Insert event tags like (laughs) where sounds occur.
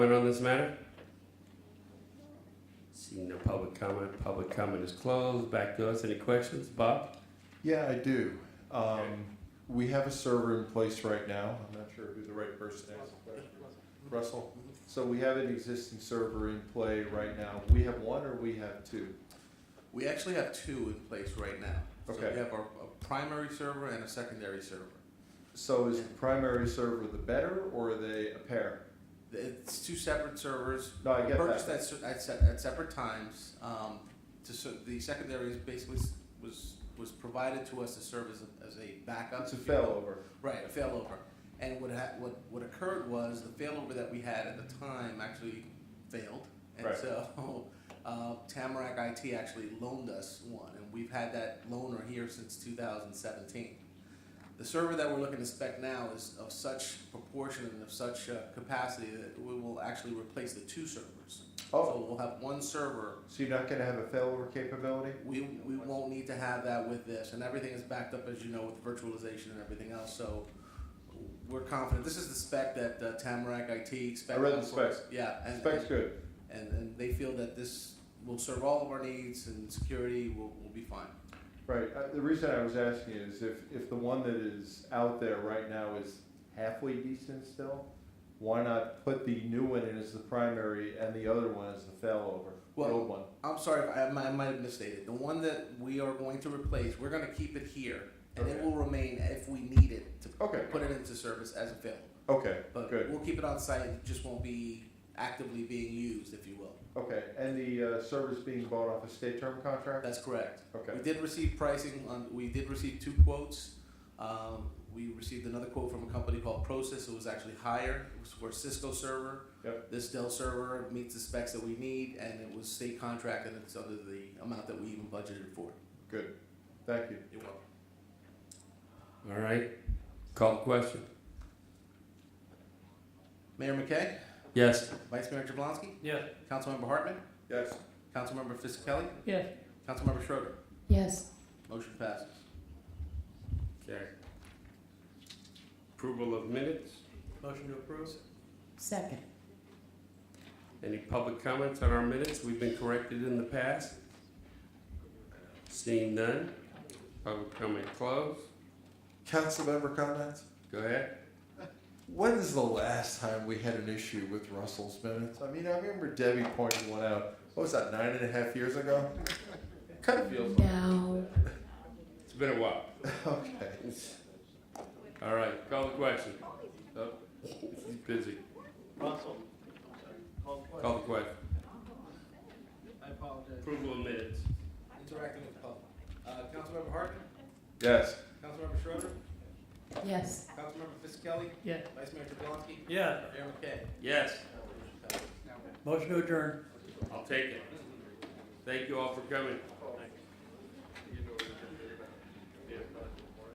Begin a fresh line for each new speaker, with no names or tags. Comment on this matter? Seeing no public comment, public comment is closed. Back to us. Any questions? Bob?
Yeah, I do.
Okay.
Um, we have a server in place right now. I'm not sure who the right person is. Russell? So we have an existing server in play right now. We have one or we have two?
We actually have two in place right now. So
Okay.
we have our, a primary server and a secondary server.
So is the primary server the better or are they a pair?
It's two separate servers.
No, I get
Purchased
that.
at, se- at, se- at separate times. Um, to, ser- the secondary is basically s- was, was provided to us to serve as a, as a backup.
It's a
if you will.
failover.
Right, a failover. And what ha- what, what occurred was the failover that we had at the time actually failed. And
Right.
so (laughs) uh, Tamarack IT actually loaned us one, and we've had that loaner here since 2017. The server that we're looking to spec now is of such proportion and of such uh, capacity that we will actually replace the two servers.
Oh,
So we'll have one server
so you're not gonna have a failover capability?
we, we won't need to have that with this, and everything is backed up, as you know, with virtualization and everything else, so we're confident, this is the spec that uh, Tamarack IT spec.
I read the specs.
Yeah, and,
Spec's good.
and, and they feel that this will serve all of our needs and security will, will be fine.
Right, uh, the reason I was asking is if, if the one that is out there right now is halfway decent still, why not put the new one in as the primary and the other one as the failover, the
Well-
old one?
I'm sorry, if I, I might- I might have misstated, the one that we are going to replace, we're gonna keep it here, and it
Okay.
will remain if we need it to
Okay,
put it into service as a fail.
okay,
But
Good.
we'll keep it on site, it just won't be actively being used, if you will,
okay, and the uh, service being bought off a state term contract?
that's correct.
Okay,
We did receive pricing on, we did receive two quotes. Um, we received another quote from a company called Process, it was actually higher, it was for a Cisco server.
Yep.
This Dell server meets the specs that we need, and it was state contract, and it's under the amount that we even budgeted for.
good, thank you.
You're welcome.
All right. Call the question.
Mayor McKay,
Yes.
Vice Mayor Jablonski,
Yes.
Councilmember Hartman,
Yes.
Councilmember Fisickelli,
Yes.
Councilmember Schroeder,
Yes,
motion passes.
Okay. Approval of minutes.
Motion to approve.
second.
Any public comments on our minutes? We've been corrected in the past. Seeing none. Public comment closed.
Council member comments?
Go ahead.
When is the last time we had an issue with Russell's minutes? I mean, I remember Debbie pointing one out, what was that, nine and a half years ago? Kind of feels like,
No,
It's been a while.
(laughs) okay.
All right. Call the question. Oh, he's busy.
Russell. Call the question.
Call the question.
I apologize.
Approval of minutes.
Interacting with the public. Uh, Councilmember Hartman,
Yes.
Councilmember Schroeder,
yes,
Councilmember Fisickelli.
Yeah.
Vice Mayor Jablonski,
Yeah.
Mayor McKay.
Yes.
Motion to adjourn.
I'll take it. Thank you all for coming.
Thanks.